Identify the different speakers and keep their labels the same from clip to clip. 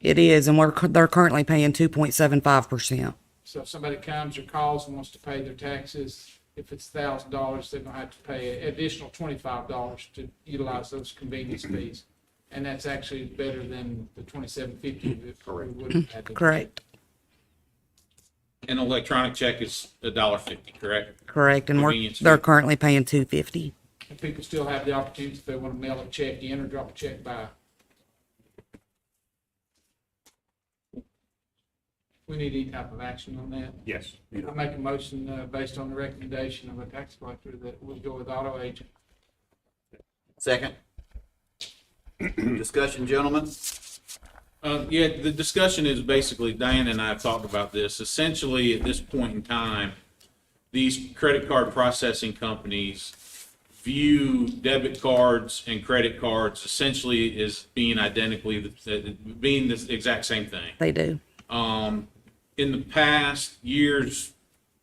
Speaker 1: It is, and we're, cur- they're currently paying two point seven five percent.
Speaker 2: So if somebody comes or calls and wants to pay their taxes, if it's thousand dollars, they're gonna have to pay an additional twenty-five dollars to utilize those convenience fees. And that's actually better than the twenty-seven fifty that we would have had. to-
Speaker 1: Correct,
Speaker 3: An electronic check is a dollar fifty, correct?
Speaker 1: correct, and we're,
Speaker 3: Convenience fee.
Speaker 1: they're currently paying two fifty.
Speaker 2: And people still have the opportunity if they want to mail a check in or drop a check by. We need any type of action on that.
Speaker 4: Yes.
Speaker 2: I make a motion, uh, based on the recommendation of a tax collector that we go with auto agent.
Speaker 5: Second. Discussion, gentlemen?
Speaker 3: Uh, yeah, the discussion is basically, Diane and I have talked about this. Essentially, at this point in time, these credit card processing companies view debit cards and credit cards essentially as being identically, the- being the exact same thing.
Speaker 1: They do.
Speaker 3: Um, in the past, years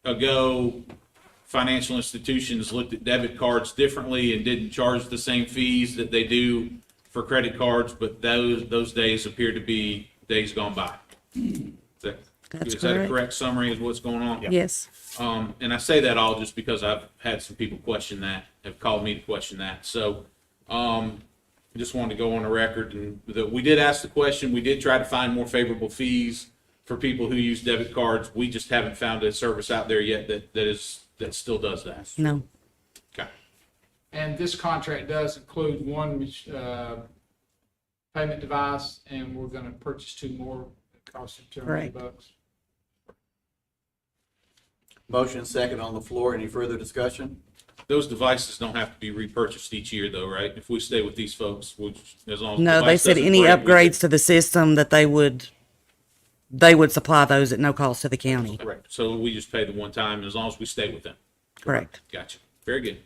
Speaker 3: ago, financial institutions looked at debit cards differently and didn't charge the same fees that they do for credit cards, but those, those days appear to be days gone by. Is that-
Speaker 1: That's
Speaker 3: Is that a
Speaker 1: correct.
Speaker 3: correct summary of what's going on?
Speaker 1: Yes,
Speaker 3: Um, and I say that all just because I've had some people question that, have called me to question that. So, um, I just wanted to go on the record and that we did ask the question. We did try to find more favorable fees for people who use debit cards. We just haven't found a service out there yet that, that is, that still does that.
Speaker 1: no,
Speaker 3: Okay.
Speaker 2: And this contract does include one, uh, payment device, and we're gonna purchase two more, costing two hundred
Speaker 1: Correct.
Speaker 2: bucks.
Speaker 5: Motion second on the floor. Any further discussion?
Speaker 3: Those devices don't have to be repurchased each year though, right? If we stay with these folks, which, as long as. the
Speaker 1: no, they
Speaker 3: device
Speaker 1: said
Speaker 3: doesn't
Speaker 1: any
Speaker 3: break, we can-
Speaker 1: upgrades to the system that they would, they would supply those at no cost to the county,
Speaker 3: Correct. So we just pay the one time as long as we stay with them.
Speaker 1: correct.
Speaker 3: Gotcha. Very good.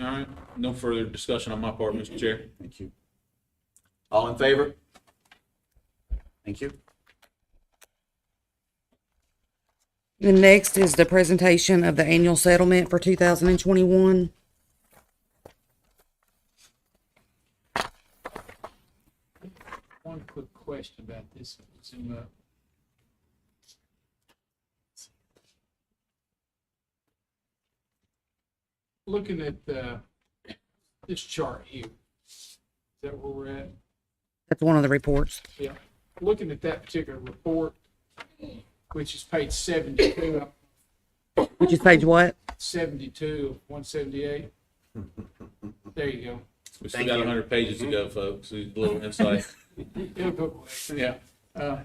Speaker 3: All right, no further discussion on my part, Mr. Chair.
Speaker 5: Thank you. All in favor? Thank you.
Speaker 1: The next is the presentation of the annual settlement for two thousand and twenty-one.
Speaker 2: One quick question about this, zoom up. Looking at, uh, this chart here, is that where we're at?
Speaker 1: That's one of the reports.
Speaker 2: Yeah, looking at that particular report, which is page seventy-two,
Speaker 1: Which is page what?
Speaker 2: seventy-two of one seventy-eight. There you go.
Speaker 3: We still
Speaker 5: Thank
Speaker 3: got
Speaker 5: you. Mm-hmm.
Speaker 3: hundred pages to go, folks. A little insight.
Speaker 2: It'll go away.
Speaker 3: Yeah.
Speaker 2: Uh,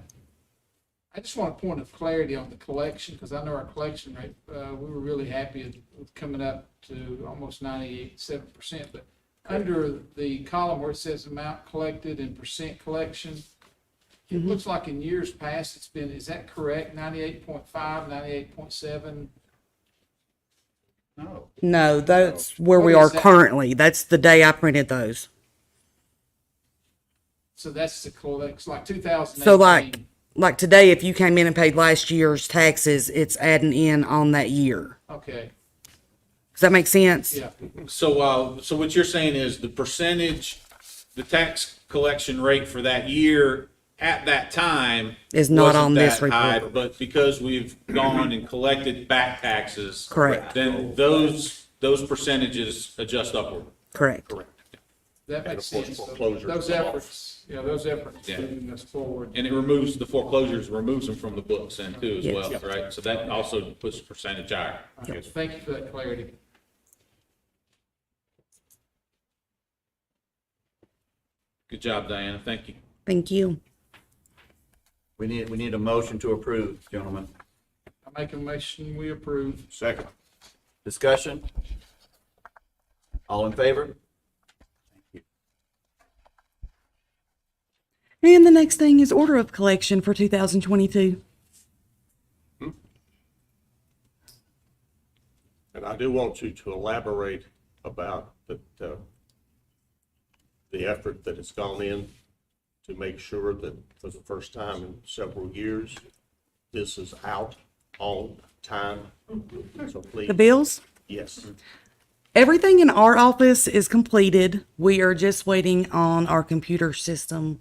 Speaker 2: I just want a point of clarity on the collection, because I know our collection rate, uh, we were really happy with coming up to almost ninety-seven percent, but under the column where it says amount collected and percent collection, it looks like in years past, it's been, is that correct, 98.5, 98.7?
Speaker 5: No.
Speaker 1: No, that's where we
Speaker 2: What
Speaker 1: are
Speaker 2: is that? currently.
Speaker 1: currently. That's the day I printed those.
Speaker 2: So that's the collects, like two thousand eighteen.
Speaker 1: So like, like today, if you came in and paid last year's taxes, it's adding in on that year.
Speaker 2: Okay,
Speaker 1: Does that make sense?
Speaker 2: yeah,
Speaker 3: So, uh, so what you're saying is the percentage, the tax collection rate for that year at that time.
Speaker 1: Is not
Speaker 3: wasn't
Speaker 1: on this
Speaker 3: that high,
Speaker 1: report.
Speaker 3: But because we've gone and collected back taxes.
Speaker 1: Correct.
Speaker 5: Oh,
Speaker 3: Then those, those percentages adjust upward.
Speaker 1: Correct.
Speaker 2: that makes
Speaker 4: course,
Speaker 2: sense.
Speaker 4: foreclosure
Speaker 2: Those
Speaker 4: is off.
Speaker 2: efforts, yeah, those efforts
Speaker 3: Yeah.
Speaker 2: moving us forward.
Speaker 3: And it removes, the foreclosures removes them from the books and too as
Speaker 1: Yes.
Speaker 3: well, right? So that also puts the percentage higher.
Speaker 2: Thank you for that clarity.
Speaker 3: Good job, Diana. Thank you.
Speaker 1: Thank you.
Speaker 5: We need, we need a motion to approve, gentlemen.
Speaker 2: I make a motion, we approve.
Speaker 4: Second.
Speaker 5: Discussion? All in favor?
Speaker 1: And the next thing is order of collection for 2022.
Speaker 4: And I do want you to elaborate about the, uh, the effort that has gone in to make sure that for the first time in several years, this is out on time. So please,
Speaker 1: The bills?
Speaker 4: yes,
Speaker 1: Everything in our office is completed. We are just waiting on our computer system